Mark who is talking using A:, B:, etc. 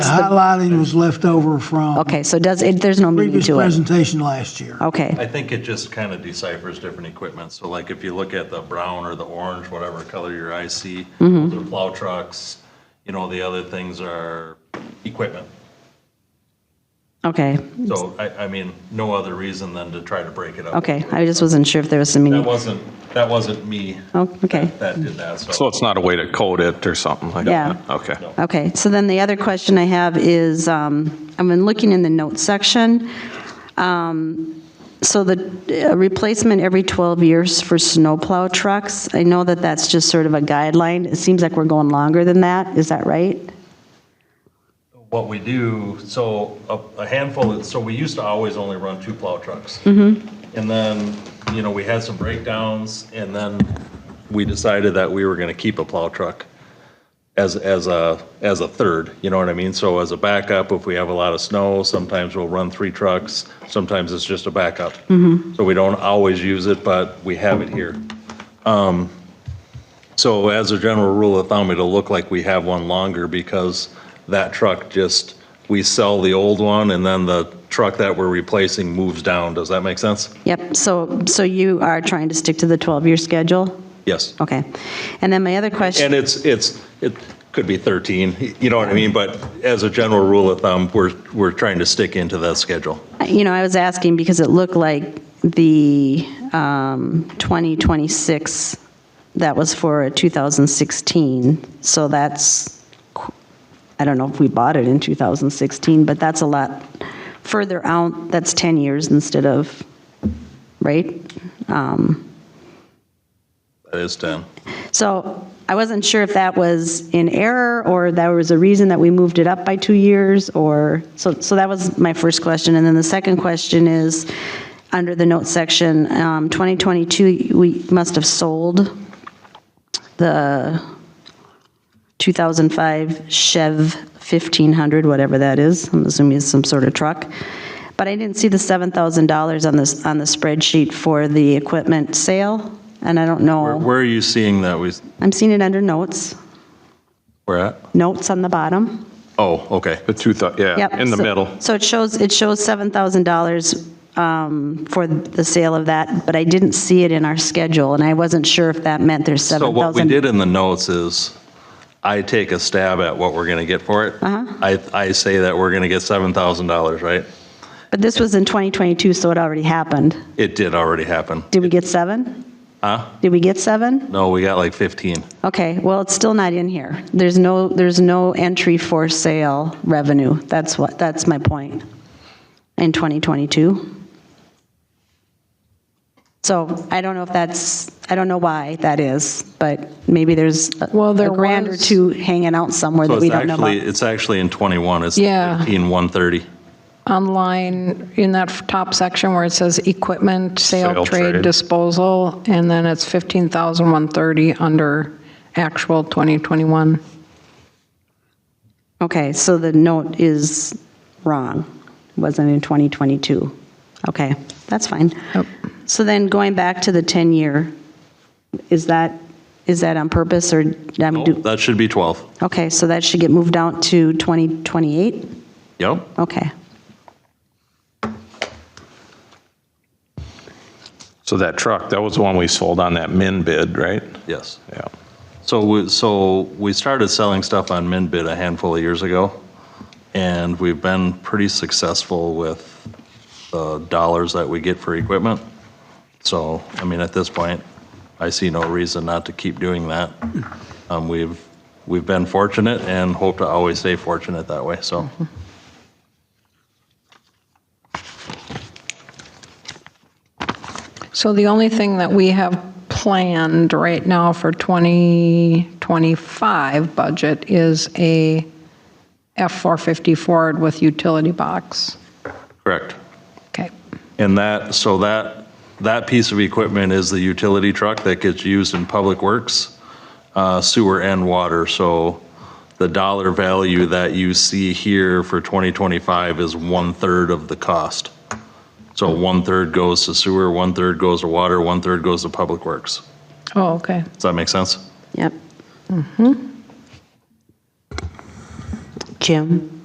A: The Highlighting was left over from
B: Okay, so does, it? there's no meaning
A: previous
B: to it.
A: presentation last year.
B: Okay,
C: I think it just kind of deciphers different equipment. So like if you look at the brown or the orange, whatever color your eyes see, those are plow trucks, you know, the other things are equipment.
B: okay,
C: So I, I mean, no other reason than to try to break it up.
B: okay. I just wasn't sure if there was some
C: That
B: meaning.
C: wasn't, that wasn't me
B: Oh, okay.
C: that did that,
D: So it's not a way to code it or something like
B: Yeah.
D: that? Okay.
B: Okay, so then the other question I have is, um, I've been looking in the notes section. Um, So the uh, replacement every 12 years for snowplow trucks, I know that that's just sort of a guideline. It seems like we're going longer than that. Is that right?
C: what we do, so a- a handful, of- so we used to always only run two plow trucks. And then, you know, we had some breakdowns, and then we decided that we were gonna keep a plow truck as, as a, as a third, you know what I mean? So as a backup, if we have a lot of snow, sometimes we'll run three trucks, sometimes it's just a backup. So we don't always use it, but we have it here. So as a general rule of thumb, it'll look like we have one longer because that truck just, we sell the old one and then the truck that we're replacing moves down. Does that make sense?
B: Yep, so, so you are trying to stick to the 12-year schedule?
C: Yes.
B: Okay. And then my other
C: And
B: question,
C: it's, it's, it could be 13, you know what I mean? But as a general rule of thumb, we're, we're trying to stick into that schedule.
B: you know, I was asking because it looked like the um, 2026, that was for 2016. So that's, qu- I don't know if we bought it in 2016, but that's a lot further out. That's 10 years instead of, right?
C: That is 10.
B: So I wasn't sure if that was in error, or there was a reason that we moved it up by two years, or, so, so that was my first question. And then the second question is, under the notes section, um, 2022, we must have sold the 2005 Chev 1500, whatever that is, I'm assuming it's some sort of truck. But I didn't see the $7,000 on this, on the spreadsheet for the equipment sale, and I don't know.
C: Where- Where are you seeing that we,
B: I'm seeing it under notes,
C: we're at?
B: notes on the bottom.
C: Oh, okay.
D: The two, thou-
B: Yep.
D: yeah, in the
B: so-
D: middle.
B: So it shows, it shows $7,000 um, for the sale of that, but I didn't see it in our schedule, and I wasn't sure if that meant there's
C: So what we
B: 7,000.
C: did in the notes is, I take a stab at what we're going to get for it.
B: Uh-huh.
C: I, I say that we're going to get $7,000, right?
B: But this was in 2022, so it already happened.
C: It did already happen.
B: Did we get seven? Huh? Did we get seven?
C: No, we got like 15.
B: Okay, well, it's still not in here. There's no, there's no entry for sale revenue. That's what, that's my point, in 2022. So I don't know if that's, I don't know why that is, but maybe there's a
E: Well,
B: a
E: there
B: grand or
E: was-
B: two hanging out somewhere
C: So
B: that we
C: it's
B: don't know
C: actually,
B: about.
C: it's actually in 21, it's
E: Yeah.
C: 15, 130.
E: online in that top section where it says equipment, sale,
D: Sale,
E: trade,
D: trade.
E: disposal, and then it's 15,130 under actual 2021.
B: Okay, so the note is wrong, wasn't in 2022. Okay, that's fine.
E: Yep.
B: So then going back to the 10-year, is that, is that on purpose, or, I mean,
C: Nope,
B: do-
C: That should be 12.
B: okay, so that should get moved out to 2028?
C: Yep.
B: Okay,
D: So that truck, that was the one we sold on that min bid, right?
C: Yes.
D: Yeah.
C: So, we- so we started selling stuff on MinBid a handful of years ago, and we've been pretty successful with the dollars that we get for equipment. So, I mean, at this point, I see no reason not to keep doing that. Um, We've, we've been fortunate and hope to always stay fortunate that way, so.
E: So the only thing that we have planned right now for 2025 budget is a F-450 Ford with utility box.
C: Correct.
E: Okay.
C: And that, so that, that piece of equipment is the utility truck that gets used in public works, uh, sewer and water. So the dollar value that you see here for 2025 is one-third of the cost. So one-third goes to sewer, one-third goes to water, one-third goes to public works.
E: Oh, okay.
C: Does that make sense?
B: yep. Jim?